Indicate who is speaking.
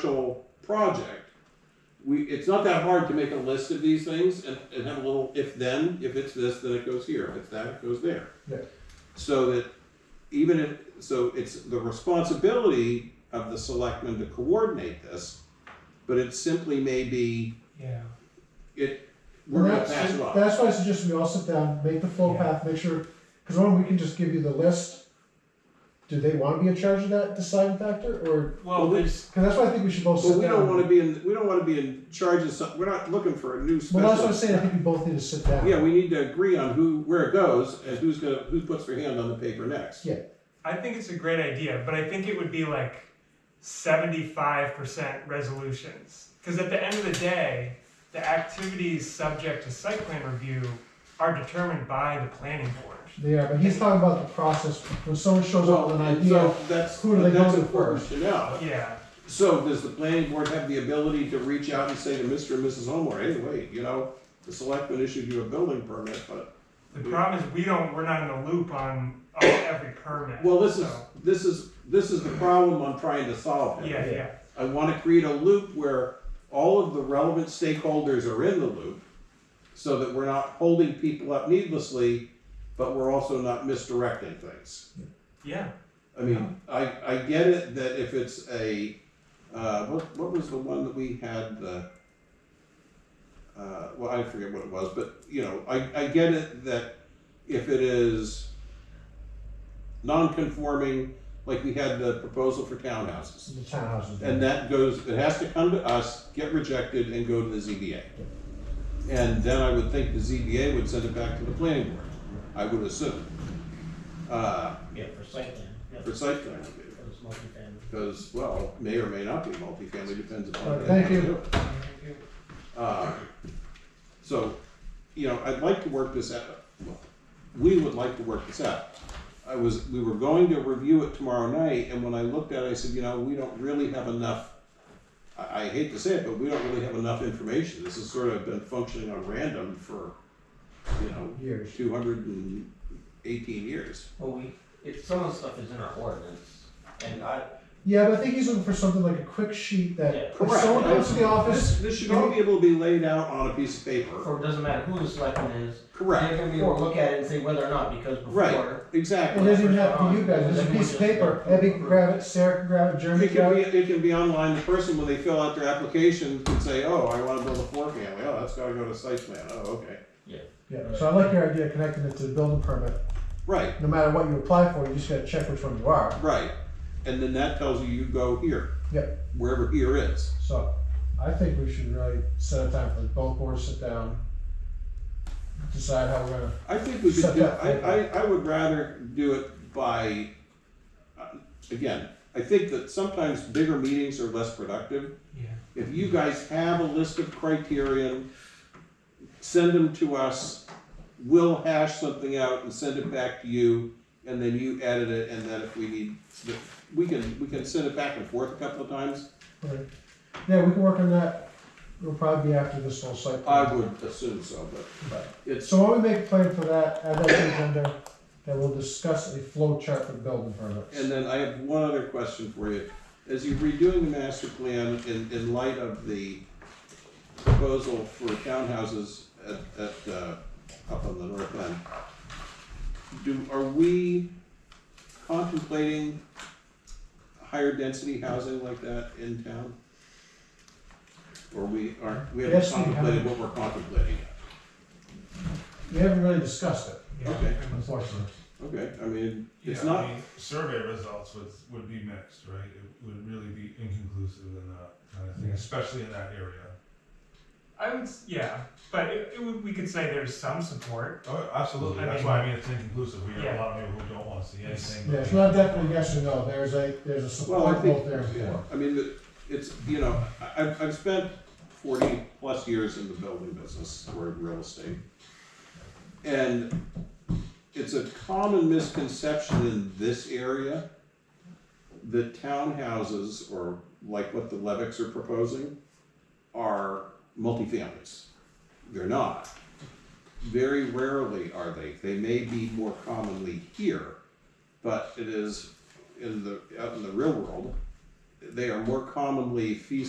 Speaker 1: commercial project, we, it's not that hard to make a list of these things and, and have a little if then, if it's this, then it goes here, if it's that, it goes there.
Speaker 2: Yeah.
Speaker 1: So that even if, so it's the responsibility of the selectmen to coordinate this, but it simply may be,
Speaker 3: Yeah,
Speaker 1: it, we're gonna
Speaker 2: That's-
Speaker 1: pass it off.
Speaker 2: That's why I suggest we all sit down, make the flow
Speaker 3: Yeah.
Speaker 2: path, make sure, because one, we can just give you the list. Do they want to be in charge of that deciding factor, or,
Speaker 3: well, there's,
Speaker 2: because that's why I think we should both sit
Speaker 1: But
Speaker 2: down.
Speaker 1: we don't wanna be in, we don't wanna be in charge of some, we're not looking for a new
Speaker 2: Well, that's what I'm
Speaker 1: special.
Speaker 2: saying, I think we both need to sit down.
Speaker 1: Yeah, we need to agree on who, where it goes and who's gonna, who puts their hand on the paper next.
Speaker 3: I think it's a great idea, but I think it would be like seventy-five percent resolutions. Because at the end of the day, the activities subject to site plan review are determined by the planning board.
Speaker 2: They are, but he's talking about the process, when someone shows up with an
Speaker 1: and
Speaker 2: idea,
Speaker 1: So that's,
Speaker 2: who do they
Speaker 1: that's
Speaker 2: go to
Speaker 1: important to know.
Speaker 3: Yeah,
Speaker 1: So does the planning board have the ability to reach out and say to Mr. and Mrs. Homer, hey, wait, you know, the selectmen issued you a building permit, but,
Speaker 3: the problem is we don't, we're not in the loop on, on every permit.
Speaker 1: well, this is,
Speaker 3: so-
Speaker 1: this is, this is the problem I'm trying to solve. here.
Speaker 3: Yeah, yeah,
Speaker 1: I wanna create a loop where all of the relevant stakeholders are in the loop, so that we're not holding people up needlessly, but we're also not misdirecting things.
Speaker 3: yeah,
Speaker 1: I mean, I, I get it that if it's a, uh, what, what was the one that we had, the, uh, well, I forget what it was, but, you know, I, I get it that if it is non-conforming, like we had the proposal for townhouses,
Speaker 2: the townhouses.
Speaker 1: and that goes, it has to come to us, get rejected, and go to the ZBA. And then I would think the ZBA would send it back to the planning board, I would assume, uh,
Speaker 4: Yeah, for site plan, yeah,
Speaker 1: for
Speaker 4: for
Speaker 1: site plan review.
Speaker 4: this multifamily.
Speaker 1: Because, well, may or may not be multifamily, depends upon.
Speaker 2: Uh, thank you.
Speaker 1: Uh, So, you know, I'd like to work this out, well, we would like to work this out. I was, we were going to review it tomorrow night, and when I looked at it, I said, you know, we don't really have enough. I, I hate to say it, but we don't really have enough information, this has sort of been functioning on random for, you know,
Speaker 2: Years.
Speaker 1: two hundred and eighteen years.
Speaker 4: Well, we, if some of the stuff is in our ordinance, and I,
Speaker 2: Yeah, but I think he's looking for something like a quick sheet
Speaker 4: Yeah.
Speaker 2: that, if
Speaker 1: Correct.
Speaker 2: someone comes to the
Speaker 1: This,
Speaker 2: office,
Speaker 1: this should all be able to be laid out on a piece of paper,
Speaker 4: for, it doesn't matter who the selectman is,
Speaker 1: correct?
Speaker 4: they're gonna be able to look at it and say whether or not, because
Speaker 1: Right,
Speaker 4: before.
Speaker 2: it
Speaker 1: exactly.
Speaker 2: doesn't even have to be you guys, it's a piece of paper, Abby can grab it, Sarah can grab it, Jeremy
Speaker 1: It
Speaker 2: can
Speaker 1: can
Speaker 2: grab
Speaker 1: be,
Speaker 2: it.
Speaker 1: it can be online, the person, when they fill out their application, can say, oh, I wanna build a four family, oh, that's gotta go to site plan, oh, okay.
Speaker 2: Yeah, so I like your idea of connecting it to the building permit.
Speaker 1: Right,
Speaker 2: no matter what you apply for, you just gotta check which one you are.
Speaker 1: right, and then that tells you you go here.
Speaker 2: Yep.
Speaker 1: Wherever here is,
Speaker 2: So I think we should really set a time for both boards to sit down, decide how we're gonna.
Speaker 1: I think we should
Speaker 2: Set
Speaker 1: do,
Speaker 2: that
Speaker 1: I, I, I would rather do it by, uh, again, I think that sometimes bigger meetings are less productive,
Speaker 3: yeah.
Speaker 1: If you guys have a list of criterion, send them to us. We'll hash something out and send it back to you, and then you edit it, and then if we need, we can, we can send it back and forth a couple of times.
Speaker 2: Yeah, we can work on that. It'll probably be after this whole site.
Speaker 1: I
Speaker 2: plan.
Speaker 1: would assume so, but it's,
Speaker 2: So why don't we make a plan for that, add that to the agenda, and we'll discuss a flow chart for building permits.
Speaker 1: and then I have one other question for you. As you're redoing the master plan in, in light of the proposal for townhouses at, at, uh, up on the north end, do, are we contemplating higher density housing like that in town? Or we aren't, we haven't
Speaker 2: Yes, we have.
Speaker 1: contemplated what we're contemplating yet?
Speaker 2: We haven't really discussed it,
Speaker 3: yeah.
Speaker 1: Okay.
Speaker 2: unfortunately.
Speaker 1: Okay, I mean, it's
Speaker 5: Yeah, I
Speaker 1: not,
Speaker 5: mean, Survey results would, would be mixed, right? It would really be inconclusive in that kind of thing,
Speaker 2: Yeah.
Speaker 5: especially in that area.
Speaker 3: I would, s- yeah, but it, it would, we could say there's some support.
Speaker 5: Oh, absolutely,
Speaker 3: I
Speaker 5: that's
Speaker 3: mean-
Speaker 5: why I mean it's inconclusive, we have
Speaker 3: Yeah.
Speaker 5: a lot of people who don't wanna see anything.
Speaker 2: Yeah, it's not definitely yes or no. There's a, there's a
Speaker 1: Well, I
Speaker 2: support
Speaker 1: think,
Speaker 2: both there and
Speaker 1: yeah,
Speaker 2: for.
Speaker 1: I mean, the- it's, you know, I, I've- I've spent forty plus years in the building business or in real estate. And it's a common misconception in this area that townhouses or like what the Levicks are proposing are multifamilies. They're not. Very rarely are they. They may be more commonly here, but it is in the, out in the real world, they are more commonly fee